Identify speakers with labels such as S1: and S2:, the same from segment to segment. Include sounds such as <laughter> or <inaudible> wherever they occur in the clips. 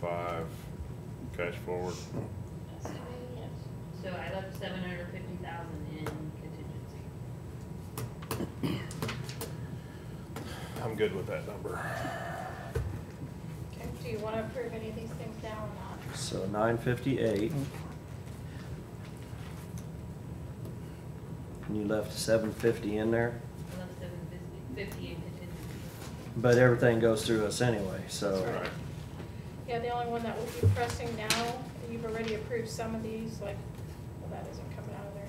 S1: five, cash forward.
S2: So I left seven hundred fifty thousand in contingency.
S1: I'm good with that number.
S3: Okay, do you want to approve any of these things now or not?
S4: So nine fifty-eight. And you left seven fifty in there,
S2: I left seven fifty, fifty in contingency.
S4: but everything goes through us anyway, so.
S1: All right.
S3: Yeah, the only one that we'll be pressing now, you've already approved some of these, like, well, that isn't coming out of there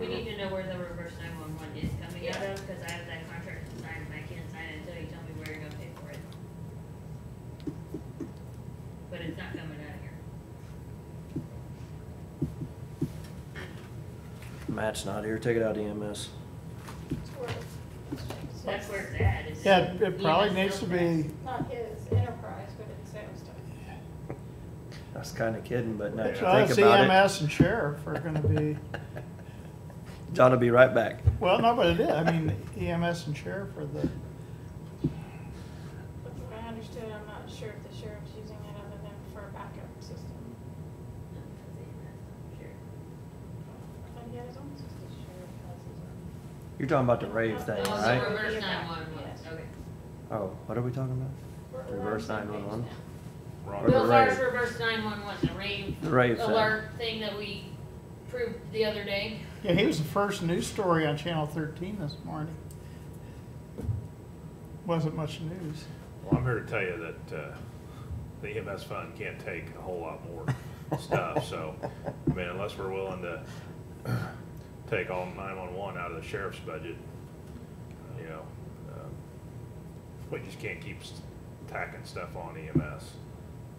S3: anymore.
S2: We need to know where the reverse nine-one-one is coming out
S3: Yeah.
S2: of, cause I have that contract to sign, and I can't sign it until you tell me where you're gonna pay for it. But it's not coming out of here.
S4: Matt's not here, take it out E EMS.
S3: It's where-
S2: So that's where it's E at, is.
S5: Yeah, it probably
S2: EMS
S5: needs to
S2: knows
S5: be,
S3: Not his enterprise, but it's sales tax.
S4: I was kinda kidding, but
S5: uh,
S4: now that you
S5: us,
S4: think about
S5: EMS E and sheriff are gonna be,
S4: it. <laughs> John will be right back.
S5: well, no, but it is, I mean, EMS and sheriff are the,
S3: But from what I understood, I'm not sure if the sheriff's using it other than for a backup system.
S2: that. No, it's EMS, sure.
S3: I thought he had his own system. Sheriff has his own.
S4: You're talking about the rave thing,
S3: Thanks,
S2: Oh,
S4: right?
S2: so reverse
S3: Yeah.
S2: nine-one-one,
S3: Yes.
S2: okay.
S4: Oh, what are we talking about?
S3: We're- we're on
S4: Reverse
S3: the same page
S4: 911.
S3: now.
S1: Ron,
S4: Or the
S2: Bill Fire's
S4: rave.
S2: reverse nine-one-one, the rave
S4: The rave thing.
S2: alert thing that we proved the other day.
S5: yeah, he was the first news story on Channel thirteen this morning. Wasn't much news.
S1: Well, I'm here to tell you that, uh, the EMS fund can't take a whole lot more stuff, so, I mean, unless we're willing to take all nine-one-one out of the sheriff's budget, you know, um, we just can't keep s- tacking stuff on EMS.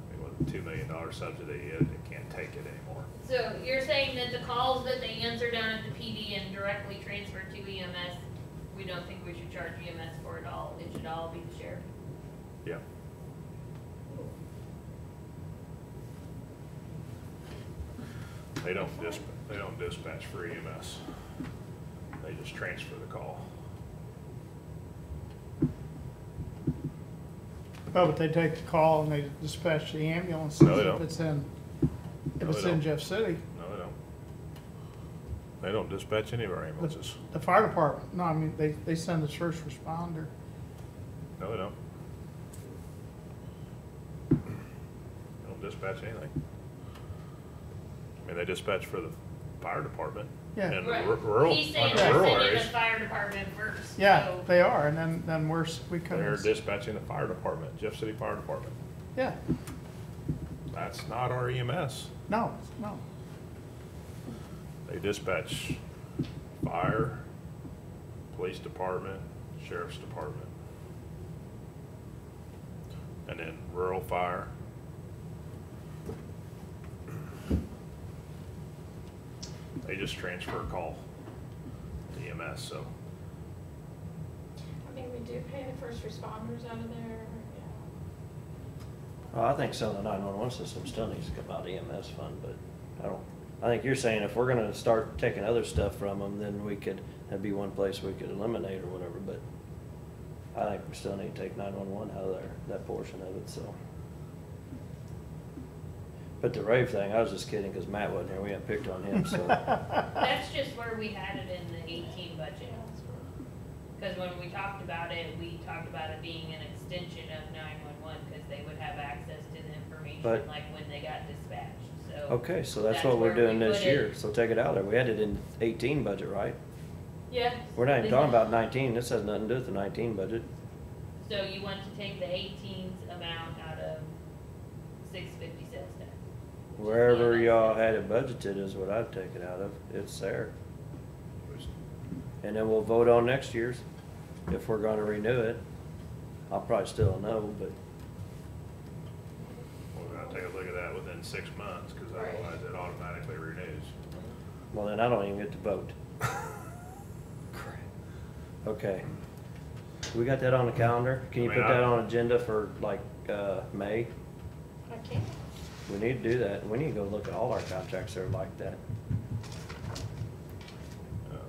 S1: I mean, with a two million dollar subsidy, it, it can't take it anymore.
S2: So you're saying that the calls that they answer down at the PD and directly transfer to EMS, we don't think we should charge EMS for it all, it should all be the sheriff?
S1: Yeah. They don't dis, they don't dispatch for EMS. They just transfer the call.
S5: Oh, but they take the call and they dispatch the ambulance
S1: No, they don't.
S5: if it's in, if
S1: No,
S5: it's
S1: they don't.
S5: in Jeff City.
S1: No, they don't. They don't dispatch any of our ambulances.
S5: The fire department, no, I mean, they, they send the first responder.
S1: No, they don't. They don't dispatch anything. I mean, they dispatch for the fire department.
S5: Yeah.
S1: And ru- rural,
S2: He's saying
S1: like
S2: they're
S1: rural
S2: sending the
S1: areas,
S2: fire department first,
S5: Yeah,
S2: so
S5: they are, and then, then we're, s- we
S1: they're
S5: couldn't,
S1: dispatching the fire department, Jeff City Fire Department.
S5: yeah,
S1: That's not our E EMS.
S5: no, no.
S1: They dispatch fire, police department, sheriff's department. And then rural fire. They just transfer a call to EMS, so
S3: I think we do pay the first responders out of there, yeah.
S4: Well, I think some of the nine-one-one system still needs to come out of EMS fund, but I don't, I think you're saying if we're gonna start taking other stuff from them, then we could, that'd be one place we could eliminate or whatever, but I think we still need to take nine-one-one out of there, that portion of it, so. But the rave thing, I was just kidding, cause Matt wasn't here, we had picked on him, so.
S2: <laughs>
S5: <laughs>
S2: that's just where we had it in the eighteen budget.
S3: Yeah, that's where-
S2: Cause when we talked about it, we talked about it being an extension of nine-one-one, cause they would have access to the information
S4: But-
S2: like when they got dispatched, so.
S4: Okay, so that's
S2: That's
S4: what we're
S2: where we
S4: doing this
S2: put it.
S4: year, so take it out of there, we had it in eighteen budget, right?
S2: Yeah.
S4: We're not even
S2: They-
S4: talking about nineteen, this has nothing to do with the nineteen budget.
S2: So you want to take the 18's amount out of six fifty sales tax?
S4: Wherever y'all had it budgeted is what I've taken out of, it's there.
S1: it was
S4: And then we'll vote on next year's, if we're gonna renew it. I'll probably still know, but
S1: we're gonna take a look at that within six months, cause otherwise it automatically renews.
S4: Well, then I don't even get to vote. Okay. We got that on the calendar? Can you
S1: I mean,
S4: put that
S1: I-
S4: on agenda for like, uh, May?
S3: I can't.
S4: We need to do that. We need to go look at all our contracts that are like that.
S1: Um,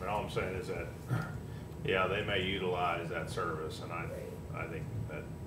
S1: But all I'm saying is that, yeah, they may utilize that service, and I, I think that